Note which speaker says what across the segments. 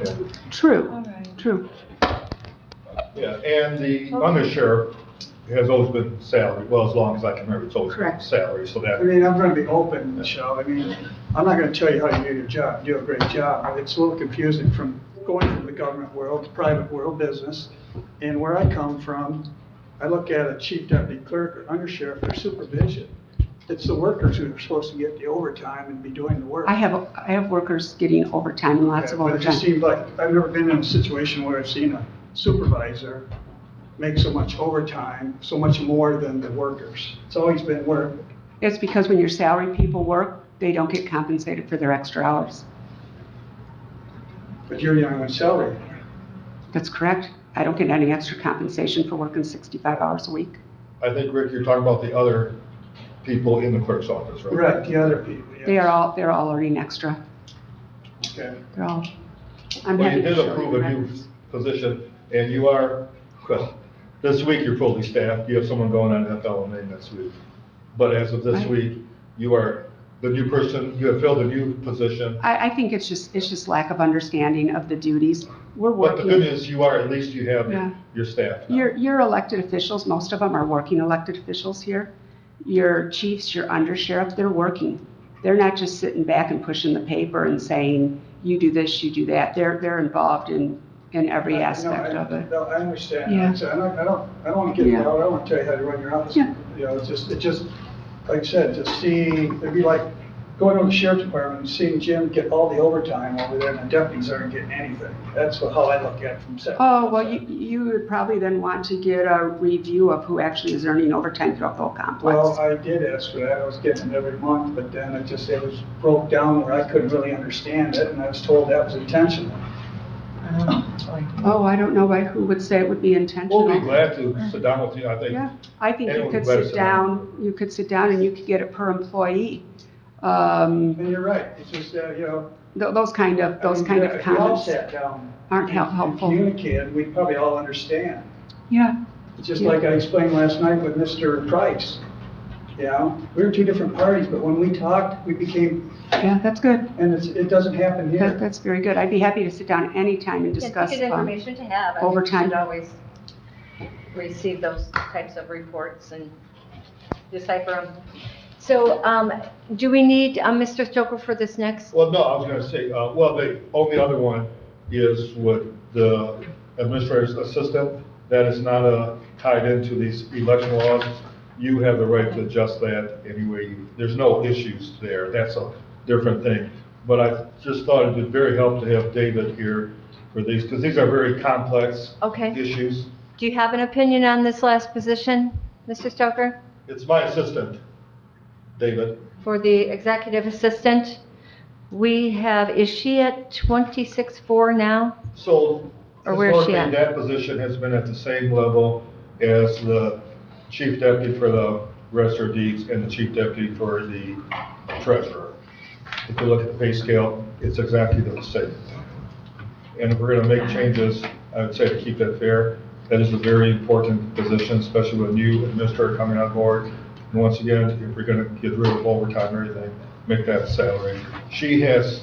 Speaker 1: And,
Speaker 2: True,
Speaker 3: All right.
Speaker 2: true.
Speaker 1: yeah, and the undersheriff has always been salaried, well, as long as I can remember, it's always been
Speaker 2: Correct.
Speaker 1: salary, so that.
Speaker 4: I mean, I'm gonna be open, Michelle, I mean, I'm not gonna tell you how you do your job, you do a great job, but it's a little confusing from going from the government world, to private world, business, and where I come from, I look at a chief deputy clerk or undersheriff or supervision. It's the workers who are supposed to get the overtime and be doing the work.
Speaker 2: I have, I have workers getting overtime and lots of
Speaker 4: But it just
Speaker 2: overtime.
Speaker 4: seems like, I've never been in a situation where I've seen a supervisor make so much overtime, so much more than the workers. It's always been where,
Speaker 2: It's because when your salary people work, they don't get compensated for their extra hours.
Speaker 4: but you're young on salary.
Speaker 2: That's correct. I don't get any extra compensation for working 65 hours a week.
Speaker 1: I think, Rick, you're talking about the other people in the clerk's office, right?
Speaker 4: Right, the other people, yes.
Speaker 2: They are all, they're all earning extra.
Speaker 4: Okay.
Speaker 2: They're all, I'm
Speaker 1: Well,
Speaker 2: happy
Speaker 1: you
Speaker 2: to
Speaker 1: did
Speaker 2: show you
Speaker 1: approve
Speaker 2: the
Speaker 1: a new
Speaker 2: records.
Speaker 1: position, and you are, well, this week you're fully staffed, you have someone going on FLMA next week. But as of this
Speaker 2: Right.
Speaker 1: week, you are the new person, you have filled a new position.
Speaker 2: I, I think it's just, it's just lack of understanding of the duties. We're
Speaker 1: But the good
Speaker 2: working,
Speaker 1: news, you are, at least you have
Speaker 2: Yeah.
Speaker 1: your staff now.
Speaker 2: your, your elected officials, most of them are working elected officials here. Your chiefs, your undersheriff, they're working. They're not just sitting back and pushing the paper and saying, you do this, you do that. They're, they're involved in, in every
Speaker 4: No, I-
Speaker 2: aspect of it.
Speaker 4: No, I understand.
Speaker 2: Yeah.
Speaker 4: I said, I don't, I don't, I don't want to get
Speaker 2: Yeah.
Speaker 4: involved, I want to tell you how to run your office.
Speaker 2: Yeah.
Speaker 4: You know, it's just, it just, like I said, to see, it'd be like going to the sheriff's department and seeing Jim get all the overtime over there and the deputies aren't getting anything. That's what- how I look at it from. second-
Speaker 2: Oh, well, you, you would probably then want to get a review of who actually is earning overtime throughout the whole
Speaker 4: Well,
Speaker 2: complex.
Speaker 4: I did ask for that, I was getting it every month, but then it just, it was broke down where I couldn't really understand it and I was told that was intentional.
Speaker 2: Oh, I don't know why, who would say it would be
Speaker 1: We'll be
Speaker 2: intentional?
Speaker 1: glad to sit down with you, I think.
Speaker 2: Yeah, I think you
Speaker 1: Anyone
Speaker 2: could
Speaker 1: better
Speaker 2: sit
Speaker 1: sit down.
Speaker 2: down, you could sit down and you could get it per employee. Um,
Speaker 4: And you're right, it's just, uh, you know,
Speaker 2: th- those kind of, those kind
Speaker 4: uh,
Speaker 2: of comments
Speaker 4: If we all sat down.
Speaker 2: aren't hel-
Speaker 4: and-
Speaker 2: helpful.
Speaker 4: And communicated, we'd probably all understand.
Speaker 2: Yeah,
Speaker 4: It's Just
Speaker 2: Yeah.
Speaker 4: like I explained last night with Mr. Price, you know? We were two different parties, but when we talked, we became,
Speaker 2: yeah, that's good.
Speaker 4: and it's, it doesn't happen
Speaker 2: That,
Speaker 4: here.
Speaker 2: that's very good. I'd be happy to sit down anytime and
Speaker 5: It's
Speaker 2: discuss.
Speaker 5: Good
Speaker 2: um,
Speaker 5: information to have. I mean,
Speaker 2: overtime.
Speaker 5: You should always receive those types of reports and decipher them. So um, do we need um, Mr. Stoker for this next?
Speaker 1: Well, no, I was gonna say, uh, well, the only other one is with the administrator's assistant. That is not, uh, tied into these election laws. You have the right to adjust that anyway. There's no issues there. That's a different thing. But I just thought it'd be very helpful to have David here for these, because these are very complex
Speaker 5: Okay.
Speaker 1: issues.
Speaker 5: Do you have an opinion on this last position, Mr. Stoker?
Speaker 1: It's my assistant, David.
Speaker 5: For the executive assistant, we have, is she at 26.4 now?
Speaker 1: So
Speaker 5: Or where is she
Speaker 1: historically,
Speaker 5: at?
Speaker 1: that position has been at the same level as the chief deputy for the register of deeds and the chief deputy for the treasurer. If you look at the pay scale, it's exactly the same. And if we're gonna make changes, I would say to keep that fair, that is a very important position, especially with a new administrator coming on board. And once again, if we're gonna get rid of overtime or anything, make that salary. She has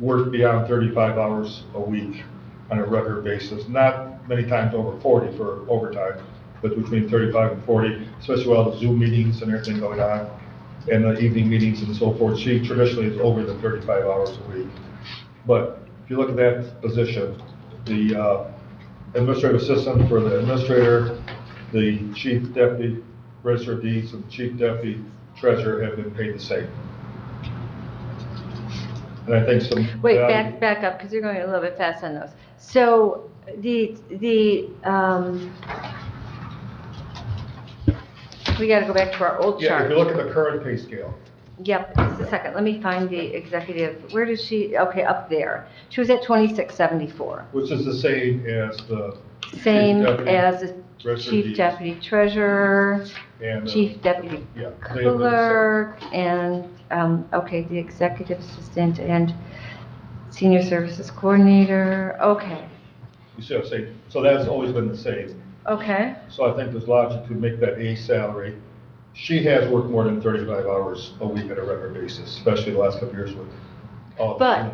Speaker 1: worked beyond thirty-five hours a week on a regular basis, not many times over forty for overtime, but between thirty-five and forty, especially with all the Zoom meetings and everything going on, and the evening meetings and so forth. She traditionally is over the thirty-five hours a week. But if you look at that position, the uh, administrative assistant for the administrator, the chief deputy register of deeds, and chief deputy treasurer have been paid the same. And I think some.
Speaker 5: Wait,
Speaker 1: value-
Speaker 5: back, back up, because you're going a little bit fast on those. So the, the, um, we got to go back to our old
Speaker 1: Yeah, if you
Speaker 5: chart.
Speaker 1: look at the current pay scale,
Speaker 5: Yep, just a second, let me find the executive, where does she, okay, up there. She was at 2674,
Speaker 1: which is the same as the
Speaker 5: same
Speaker 1: deputy,
Speaker 5: as the
Speaker 1: register of
Speaker 5: chief
Speaker 1: deeds,
Speaker 5: deputy treasurer,
Speaker 1: and the-
Speaker 5: chief deputy
Speaker 1: yeah, they have been the same.
Speaker 5: clerk, and, um, okay, the executive assistant and senior services coordinator, okay,
Speaker 1: You see what I'm saying? So that's always been the same.
Speaker 5: okay.
Speaker 1: So I think there's logic to make that a salary. She has worked more than 35 hours a week on a regular basis, especially the last couple of years with all the
Speaker 5: But